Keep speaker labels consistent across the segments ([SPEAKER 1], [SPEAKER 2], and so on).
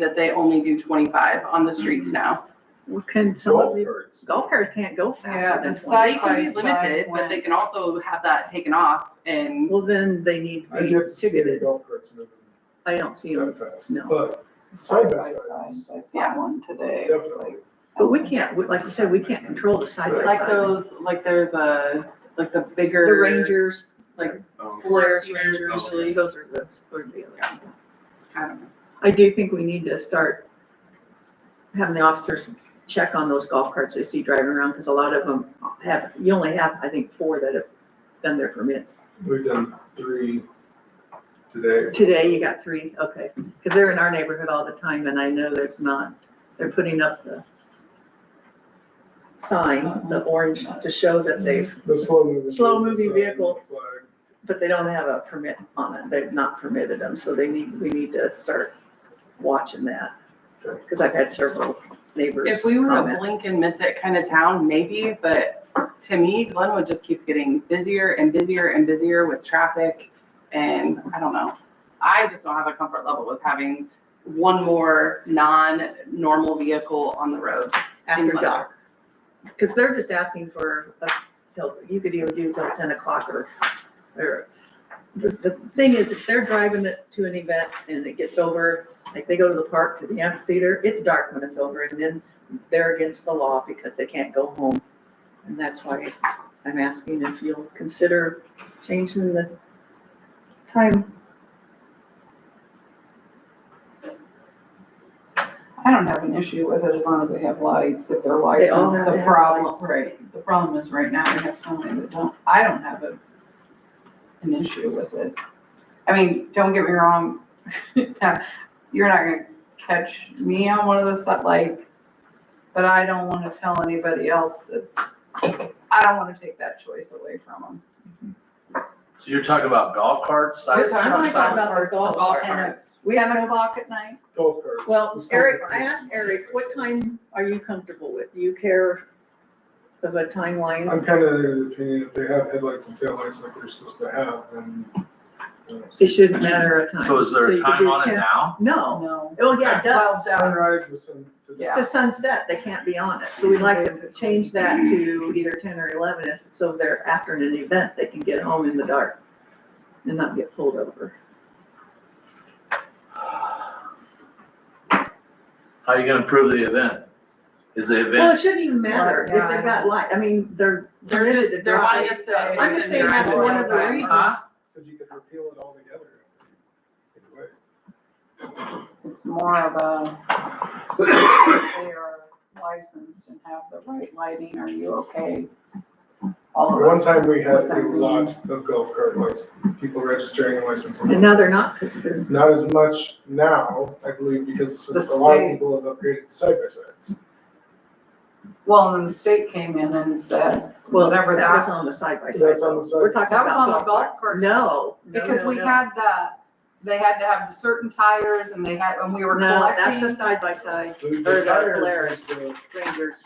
[SPEAKER 1] that they only do twenty-five on the streets now.
[SPEAKER 2] Well, Can some of
[SPEAKER 3] golf
[SPEAKER 2] the,
[SPEAKER 3] carts.
[SPEAKER 2] golf cars can't go
[SPEAKER 1] Yeah,
[SPEAKER 2] faster
[SPEAKER 1] the
[SPEAKER 2] than twenty.
[SPEAKER 1] site is limited, but they can also have that taken off and
[SPEAKER 2] Well, then they need
[SPEAKER 3] I
[SPEAKER 2] to be
[SPEAKER 3] get to see the
[SPEAKER 2] ticketed.
[SPEAKER 3] golf carts moving
[SPEAKER 2] I don't see them.
[SPEAKER 3] that fast,
[SPEAKER 2] No.
[SPEAKER 3] but side by
[SPEAKER 4] Side by
[SPEAKER 3] sides,
[SPEAKER 4] side, I saw
[SPEAKER 1] Yeah.
[SPEAKER 4] one today, it was
[SPEAKER 3] definitely.
[SPEAKER 4] like,
[SPEAKER 2] But we can't, we- like you said, we can't control the side by
[SPEAKER 1] like
[SPEAKER 2] side.
[SPEAKER 1] those, like they're the, like the
[SPEAKER 2] The
[SPEAKER 1] bigger.
[SPEAKER 2] Rangers,
[SPEAKER 1] Like
[SPEAKER 3] Um,
[SPEAKER 2] Polaris
[SPEAKER 1] Forest Rangers,
[SPEAKER 2] Rangers,
[SPEAKER 1] usually.
[SPEAKER 2] those are the, are the other. ones.
[SPEAKER 1] I don't know.
[SPEAKER 2] I do think we need to start having the officers check on those golf carts they see driving around, because a lot of them have, you only have, I think, four that have done their permits.
[SPEAKER 3] We've done three today.
[SPEAKER 2] Today, you got three, okay, because they're in our neighborhood all the time, and I know there's not, they're putting up the sign, the orange, to show that they've,
[SPEAKER 3] The slow moving.
[SPEAKER 2] Slow moving
[SPEAKER 3] vehicle sign, flag.
[SPEAKER 2] but they don't have a permit on it, they've not permitted them, so they need, we need to start watching that. Because I've had several neighbors.
[SPEAKER 1] If we were a
[SPEAKER 2] comment.
[SPEAKER 1] blink and miss it kind of town, maybe, but to me, Glenwood just keeps getting busier and busier and busier with traffic. And I don't know, I just don't have a comfort level with having one more non-normal vehicle on the road.
[SPEAKER 2] after dark. Because they're just asking for, a- till- you could even do till ten o'clock or, or, the, the thing is, if they're driving it to an event and it gets over, like they go to the park, to the amphitheater, it's dark when it's over, and then they're against the law because they can't go home. And that's why I'm asking if you'll consider changing the time.
[SPEAKER 4] I don't have an issue with it as long as they have lights, if they're licensed.
[SPEAKER 2] all have to
[SPEAKER 4] The
[SPEAKER 2] have lights.
[SPEAKER 4] problem, right, the problem is right now we have so many that don't, I don't have a, an issue with it. I mean, don't get me wrong, you're not gonna catch me on one of those that like, but I don't wanna tell anybody else that, I don't wanna take that choice away from them.
[SPEAKER 5] So you're talking about golf carts? side-
[SPEAKER 4] Yes, I'm
[SPEAKER 2] talking
[SPEAKER 5] side-
[SPEAKER 2] about the golf
[SPEAKER 5] Golf
[SPEAKER 2] cart.
[SPEAKER 5] carts.
[SPEAKER 2] We
[SPEAKER 4] Ten o'clock at night?
[SPEAKER 3] Golf carts.
[SPEAKER 2] Well,
[SPEAKER 3] the slow
[SPEAKER 2] Eric, I
[SPEAKER 3] moving
[SPEAKER 2] asked
[SPEAKER 3] vehicle
[SPEAKER 2] Eric, what
[SPEAKER 3] signs.
[SPEAKER 2] time are you comfortable with? Do you care of a timeline?
[SPEAKER 3] I'm kind of of the opinion if they have headlights and taillights like they're supposed to have, then. you know,
[SPEAKER 2] It shouldn't matter a time.
[SPEAKER 5] So is there
[SPEAKER 2] you
[SPEAKER 5] a
[SPEAKER 2] could
[SPEAKER 5] time
[SPEAKER 2] do
[SPEAKER 5] on it
[SPEAKER 2] 10
[SPEAKER 5] now?
[SPEAKER 2] No.
[SPEAKER 4] No.
[SPEAKER 2] Well, yeah, it does.
[SPEAKER 4] Well,
[SPEAKER 3] Sunrise to sun. to-
[SPEAKER 4] Yeah.
[SPEAKER 2] It's to sunset, they can't be on it. So we'd like to change that to either ten or eleven, if, so they're after an event, they can get home in the dark and not get pulled over.
[SPEAKER 5] How are you gonna prove the event? Is the
[SPEAKER 2] Well, it
[SPEAKER 5] event,
[SPEAKER 2] shouldn't even matter if they've got light. I mean, they're.
[SPEAKER 1] They're just, they're wanting us to.
[SPEAKER 2] uh, I'm just saying that's one of the reasons.
[SPEAKER 5] Huh?
[SPEAKER 3] So you could repeal it all together. Either way.
[SPEAKER 4] It's more of a, if they are licensed and have the right lighting, are you okay? All of
[SPEAKER 3] One
[SPEAKER 4] us.
[SPEAKER 3] time we had a
[SPEAKER 4] Without me.
[SPEAKER 3] lot of golf cart license, people registering and licensing.
[SPEAKER 2] And now they're not, because they're,
[SPEAKER 3] Not as much now, I believe, because a
[SPEAKER 4] The
[SPEAKER 3] lot of
[SPEAKER 4] state-
[SPEAKER 3] people have upgraded side by sides.
[SPEAKER 4] Well, and then the state came in and said,
[SPEAKER 2] well,
[SPEAKER 4] Whatever
[SPEAKER 2] that was
[SPEAKER 4] that-
[SPEAKER 2] on the side by side.
[SPEAKER 3] That's on the side.
[SPEAKER 2] We're talking
[SPEAKER 4] that was on the
[SPEAKER 2] about.
[SPEAKER 4] golf cart.
[SPEAKER 2] No. no,
[SPEAKER 4] Because
[SPEAKER 2] no,
[SPEAKER 4] we
[SPEAKER 2] no.
[SPEAKER 4] had the, they had to have the certain tires and they had, and we were
[SPEAKER 2] No, that's the
[SPEAKER 4] collecting.
[SPEAKER 2] side by side
[SPEAKER 3] The- the
[SPEAKER 2] Or the
[SPEAKER 3] tires
[SPEAKER 2] Polaris.
[SPEAKER 3] was the-
[SPEAKER 2] rangers.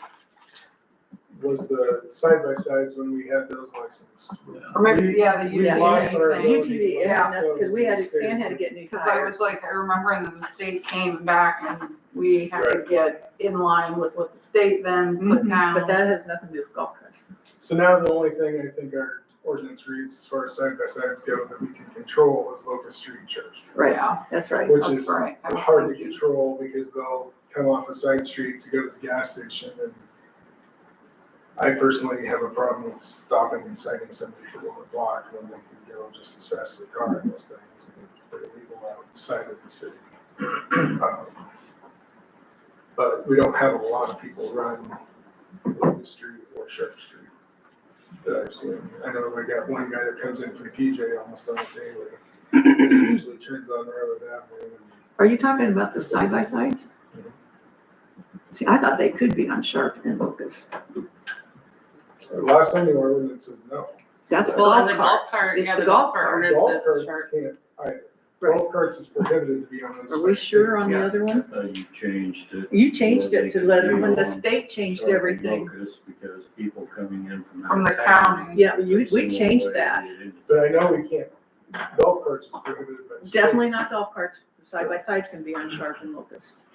[SPEAKER 3] Was the side by sides when we had those licensed.
[SPEAKER 4] Or maybe, yeah, the
[SPEAKER 3] We lost our
[SPEAKER 4] UGA thing.
[SPEAKER 3] ability.
[SPEAKER 2] UTV, yeah, because we had, Stan had to get new
[SPEAKER 4] Cause I
[SPEAKER 2] tires.
[SPEAKER 4] was like, I remember and then the state came back and we had to get in line with what the state then put
[SPEAKER 2] Mhm,
[SPEAKER 4] down.
[SPEAKER 2] But that has nothing to do with golf carts.
[SPEAKER 3] So now the only thing I think our ordinance reads as far as side by sides go that we can control is Locust Street and Church. Street,
[SPEAKER 2] Right,
[SPEAKER 4] Yeah,
[SPEAKER 2] that's right.
[SPEAKER 3] Which
[SPEAKER 4] that's
[SPEAKER 3] is
[SPEAKER 4] right. I was
[SPEAKER 3] hard to
[SPEAKER 4] thinking.
[SPEAKER 3] control because they'll come off a side street to go to the gas station and I personally have a problem with stopping and citing somebody for going a block when they can go just as fast as a car and those things. and They're illegal outside of the city. Um, But we don't have a lot of people run Locust Street or Sharp Street that I've seen. I know I got one guy that comes in from PJ almost on a daily. Usually turns on Railroad Avenue and
[SPEAKER 2] Are you talking about the side by sides? See, I thought they could be on Sharp and Locust.
[SPEAKER 3] The Last time the ordinance says no.
[SPEAKER 2] That's the
[SPEAKER 1] Well,
[SPEAKER 2] golf
[SPEAKER 1] the golf
[SPEAKER 2] carts.
[SPEAKER 1] cart,
[SPEAKER 2] It's
[SPEAKER 1] yeah,
[SPEAKER 2] the golf cart.
[SPEAKER 1] ordinance
[SPEAKER 3] Golf
[SPEAKER 1] says
[SPEAKER 3] carts
[SPEAKER 1] shark.
[SPEAKER 3] can't, alright,
[SPEAKER 2] Right.
[SPEAKER 3] golf carts is prohibited to be on those.
[SPEAKER 2] Are we sure on the
[SPEAKER 5] Yeah.
[SPEAKER 2] other one?
[SPEAKER 6] Uh, you changed it.
[SPEAKER 2] You changed it to let, when the
[SPEAKER 6] Yeah.
[SPEAKER 2] state changed
[SPEAKER 6] Sorry,
[SPEAKER 2] everything.
[SPEAKER 6] Locust, Because people coming in from.
[SPEAKER 4] From the
[SPEAKER 6] out of town,
[SPEAKER 4] county.
[SPEAKER 2] Yeah, you,
[SPEAKER 6] every
[SPEAKER 2] we
[SPEAKER 6] single
[SPEAKER 2] changed
[SPEAKER 6] way
[SPEAKER 2] that.
[SPEAKER 6] they did it.
[SPEAKER 3] But I know we can't golf carts was prohibited by the state.
[SPEAKER 2] Definitely not golf carts, side by sides can be on Sharp and Locust.